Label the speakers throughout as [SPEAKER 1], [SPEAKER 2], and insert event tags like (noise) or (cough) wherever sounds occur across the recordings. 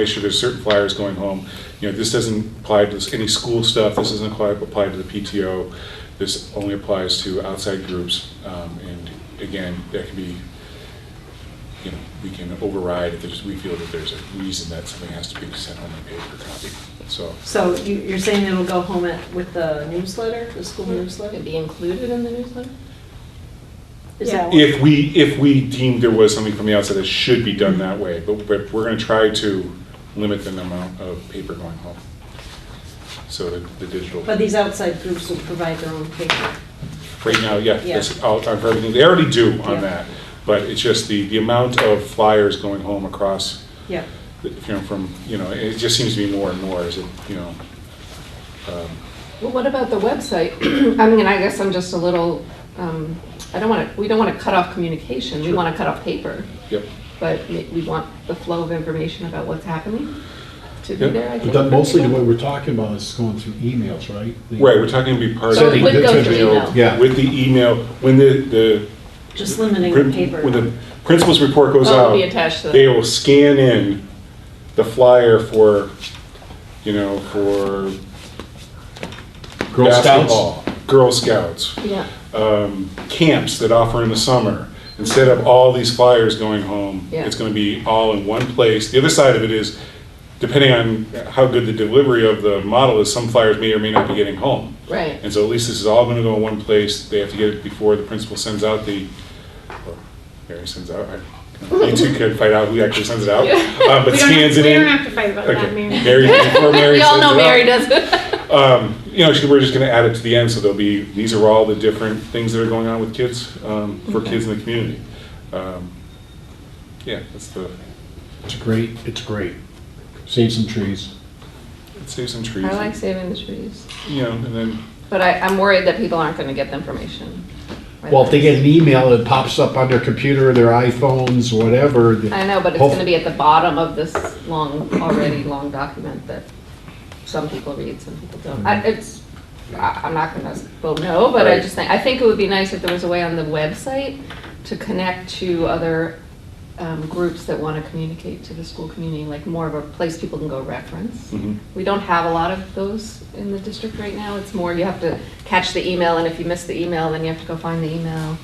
[SPEAKER 1] make sure there's certain flyers going home. You know, this doesn't apply to s- any school stuff, this doesn't apply, apply to the PTO. This only applies to outside groups, um, and again, that can be, you know, we can override if there's, we feel that there's a reason that something has to be sent home in paper copy, so.
[SPEAKER 2] So you, you're saying it'll go home at, with the newsletter, the school newsletter?
[SPEAKER 3] Mm-hmm. It'd be included in the newsletter?
[SPEAKER 2] Is that what?
[SPEAKER 1] If we, if we deemed there was something from the outside that should be done that way, but, but we're gonna try to limit the amount of paper going home. So the, the digital,
[SPEAKER 2] But these outside groups will provide their own paper.
[SPEAKER 1] right now, yeah,
[SPEAKER 2] Yeah.
[SPEAKER 1] that's out on everything, they already do on
[SPEAKER 2] Yeah.
[SPEAKER 1] that. But it's just the, the amount of flyers going home across,
[SPEAKER 2] Yeah.
[SPEAKER 1] the- you know, from, you know, it just seems to be more and more, as it, you know. um,
[SPEAKER 3] Well, what about the website? (clears throat) I mean, I guess I'm just a little, um, I don't want to, we don't want to cut off communication. We
[SPEAKER 1] Sure.
[SPEAKER 3] want to cut off paper,
[SPEAKER 1] Yep,
[SPEAKER 3] but we we want the flow of information about what's happening to be
[SPEAKER 1] Yeah.
[SPEAKER 3] there, I think.
[SPEAKER 4] But that
[SPEAKER 3] for
[SPEAKER 4] mostly the way
[SPEAKER 3] people.
[SPEAKER 4] we're talking about is going through emails, right? The-
[SPEAKER 1] right, we're talking to be part of.
[SPEAKER 3] So it
[SPEAKER 1] the
[SPEAKER 3] would go through
[SPEAKER 1] digital-
[SPEAKER 3] email.
[SPEAKER 4] Yeah.
[SPEAKER 1] With the email, when the, the
[SPEAKER 2] Just limiting
[SPEAKER 1] Prin-
[SPEAKER 2] the paper.
[SPEAKER 1] When the principal's report goes
[SPEAKER 3] Oh,
[SPEAKER 1] out,
[SPEAKER 3] it'll be attached to the-
[SPEAKER 1] they will scan in the flyer for, you know, for
[SPEAKER 4] Girl Scouts.
[SPEAKER 1] basketball, Girl Scouts,
[SPEAKER 3] Yeah,
[SPEAKER 1] um, camps that offer in the summer. Instead of all these flyers going home,
[SPEAKER 3] Yeah.
[SPEAKER 1] it's going to be all in one place. The other side of it is, depending on how good the delivery of the model is, some flyers may or may not be getting home.
[SPEAKER 3] right.
[SPEAKER 1] And so at least this is all gonna go in one place, they have to get it before the principal sends out the, or Mary sends out, I- you two can fight out who actually sends it
[SPEAKER 5] (laughs)
[SPEAKER 1] out, uh, but
[SPEAKER 5] We don't
[SPEAKER 1] scans
[SPEAKER 5] have-
[SPEAKER 1] it in.
[SPEAKER 5] We don't have to fight about that,
[SPEAKER 1] Okay, Mary,
[SPEAKER 5] Mary. (laughs)
[SPEAKER 1] before Mary
[SPEAKER 3] We all know
[SPEAKER 1] sends it out.
[SPEAKER 3] Mary does (laughs) it.
[SPEAKER 1] Um, you know, she- we're just gonna add it to the end, so there'll be, these are all the different things that are going on with kids, um, for kids in the community. Um, Yeah, that's the,
[SPEAKER 4] It's great, it's great. Save some trees.
[SPEAKER 1] save some trees,
[SPEAKER 3] I like saving the trees,
[SPEAKER 1] you know, and then,
[SPEAKER 3] but I, I'm worried that people aren't going to get the information. right
[SPEAKER 4] Well, if they
[SPEAKER 3] away.
[SPEAKER 4] get an email, it pops up on their computer, their iPhones, whatever. the-
[SPEAKER 3] I know, but it's going to be at the bottom of this long, already long document that some people read, some people don't. I, it's, I, I'm not going to vote no, but I
[SPEAKER 1] Right.
[SPEAKER 3] just think, I think it would be nice if there was a way on the website to connect to other um, groups that want to communicate to the school community, like more of a place people can go reference.
[SPEAKER 1] mhm.
[SPEAKER 3] We don't have a lot of those in the district right now. It's more you have to catch the email, and if you miss the email, then you have to go find the email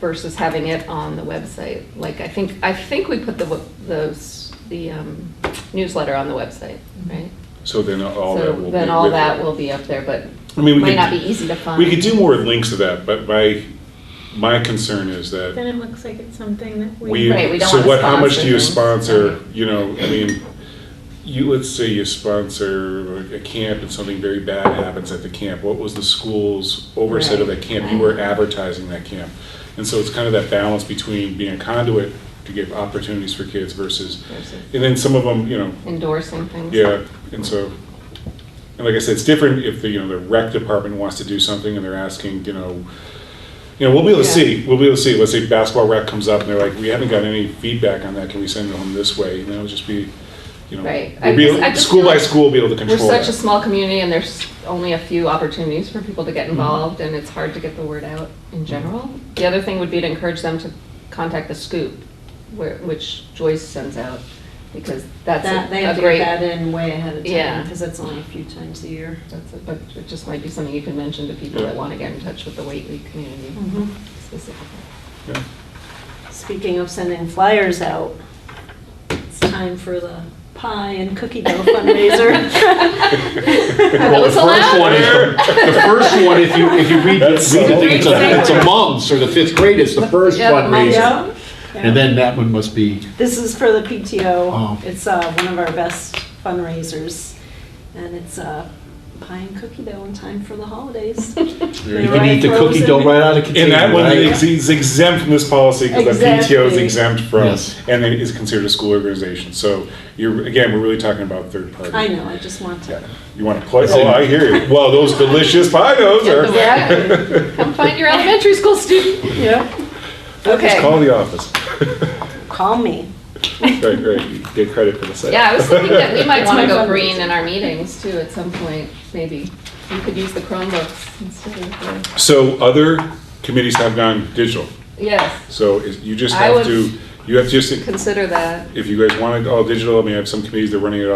[SPEAKER 3] versus having it on the website. Like, I think, I think we put the, w- those, the um, newsletter on the website, right?
[SPEAKER 1] so then all that will be.
[SPEAKER 3] So then all
[SPEAKER 1] with it.
[SPEAKER 3] that will be up there, but
[SPEAKER 1] I mean, we
[SPEAKER 3] might
[SPEAKER 1] could-
[SPEAKER 3] not be easy to find.
[SPEAKER 1] We could do more links to that, but my, my concern is that
[SPEAKER 5] Then it looks like it's something that we.
[SPEAKER 1] we,
[SPEAKER 3] Right, we don't
[SPEAKER 1] so
[SPEAKER 3] wanna
[SPEAKER 1] what, how much do you
[SPEAKER 3] sponsor
[SPEAKER 1] sponsor, you know, I mean, you, let's say you sponsor a camp and something very bad happens at the camp, what was the school's oversight of that camp? You were advertising that camp. And so it's kind of that balance between being a conduit to give opportunities for kids versus,
[SPEAKER 3] Versus
[SPEAKER 1] and then some of them, you know,
[SPEAKER 3] Endorsing things.
[SPEAKER 1] yeah, and so, and like I said, it's different if the, you know, the rec department wants to do something and they're asking, you know, you know, we'll be able to
[SPEAKER 3] Yeah.
[SPEAKER 1] see, we'll be able to see, let's say basketball rec comes up and they're like, we haven't got any feedback on that, can we send it home this way? And that'll just be, you know,
[SPEAKER 3] Right.
[SPEAKER 1] we'll
[SPEAKER 3] I
[SPEAKER 1] be
[SPEAKER 3] just-
[SPEAKER 1] able-
[SPEAKER 3] I just
[SPEAKER 1] school
[SPEAKER 3] feel
[SPEAKER 1] by
[SPEAKER 3] like
[SPEAKER 1] school, we'll be able to
[SPEAKER 3] We're
[SPEAKER 1] control (laughs)
[SPEAKER 3] such
[SPEAKER 1] that.
[SPEAKER 3] a small community, and there's only a few opportunities for people to get involved, and it's hard to get the word out in general. The other thing would be to encourage them to contact the scoop, where- which Joyce sends out, because that's
[SPEAKER 2] That, they
[SPEAKER 3] a-
[SPEAKER 2] have
[SPEAKER 3] a
[SPEAKER 2] to get
[SPEAKER 3] great.
[SPEAKER 2] that in way ahead of time,
[SPEAKER 3] Yeah.
[SPEAKER 2] because that's only a few times a year.
[SPEAKER 3] that's a- But it just might be something you can mention to people that want to get in touch with the Whately community
[SPEAKER 2] Mm.
[SPEAKER 3] specifically.
[SPEAKER 1] Yeah.
[SPEAKER 2] Speaking of sending flyers out, it's time for the pie and cookie dough fundraiser.
[SPEAKER 4] Well, the
[SPEAKER 3] That was
[SPEAKER 4] first one is The the first one, if you, if you read, read the
[SPEAKER 1] That's so-
[SPEAKER 4] thing, it's a, it's a mums, or the fifth grade, it's the first
[SPEAKER 3] Yeah, the mums.
[SPEAKER 4] fundraiser.
[SPEAKER 2] (laughs) Yeah.
[SPEAKER 4] And then that one must be,
[SPEAKER 2] This is for the PTO.
[SPEAKER 4] Oh.
[SPEAKER 2] It's uh, one of our best fundraisers, and it's uh, pie and cookie dough in time for the holidays.
[SPEAKER 4] you can eat the cookie dough right out of the container,
[SPEAKER 1] And that one
[SPEAKER 4] right?
[SPEAKER 1] is is exempt from this policy because the PTO is
[SPEAKER 2] Exactly.
[SPEAKER 1] exempt from,
[SPEAKER 4] Yes.
[SPEAKER 1] and it is considered a school organization. So you're, again, we're really talking about third party.
[SPEAKER 2] I know, I just want to.
[SPEAKER 1] You want to play? Oh, I hear you. Well, those delicious pie those
[SPEAKER 3] Get
[SPEAKER 1] are.
[SPEAKER 3] the word out. Come find your elementary school student.
[SPEAKER 2] Yeah.
[SPEAKER 3] Okay.
[SPEAKER 1] Call the office.
[SPEAKER 2] Call me.
[SPEAKER 1] Right, right, you get credit for the sale.
[SPEAKER 3] Yeah, I was thinking that we might
[SPEAKER 2] It's
[SPEAKER 3] want
[SPEAKER 2] my
[SPEAKER 3] to go
[SPEAKER 2] fundraiser.
[SPEAKER 3] green in our meetings too at some point, maybe. We could use the Chromebooks instead of the.
[SPEAKER 1] So other committees have gone digital,
[SPEAKER 3] Yes,
[SPEAKER 1] so is- you just
[SPEAKER 3] I
[SPEAKER 1] have
[SPEAKER 3] was-
[SPEAKER 1] to, You have to just,
[SPEAKER 3] consider that.
[SPEAKER 1] if you guys want it all digital, I mean, I have some committees that are running it